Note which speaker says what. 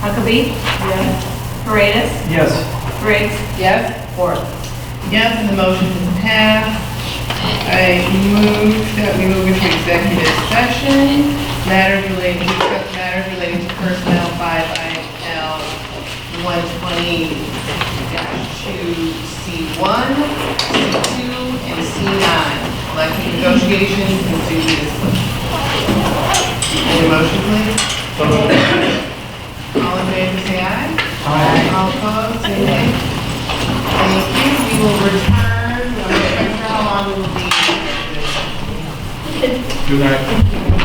Speaker 1: Huckabee.
Speaker 2: Yes.
Speaker 1: Paredes.
Speaker 3: Yes.
Speaker 1: Briggs.
Speaker 2: Yes.
Speaker 1: Ford.
Speaker 2: Yes, and the motion is passed. I move that we move into executive session, matters relating, discuss matters relating to personnel five IL one twenty two C one, C two, and C nine, collective negotiations and duty discipline. Any motion, please?
Speaker 3: So moved.
Speaker 2: All in favor, say aye.
Speaker 3: Aye.
Speaker 2: All opposed, say nay. Thank you. We will return, I'm not sure how long we will be.
Speaker 3: Good night.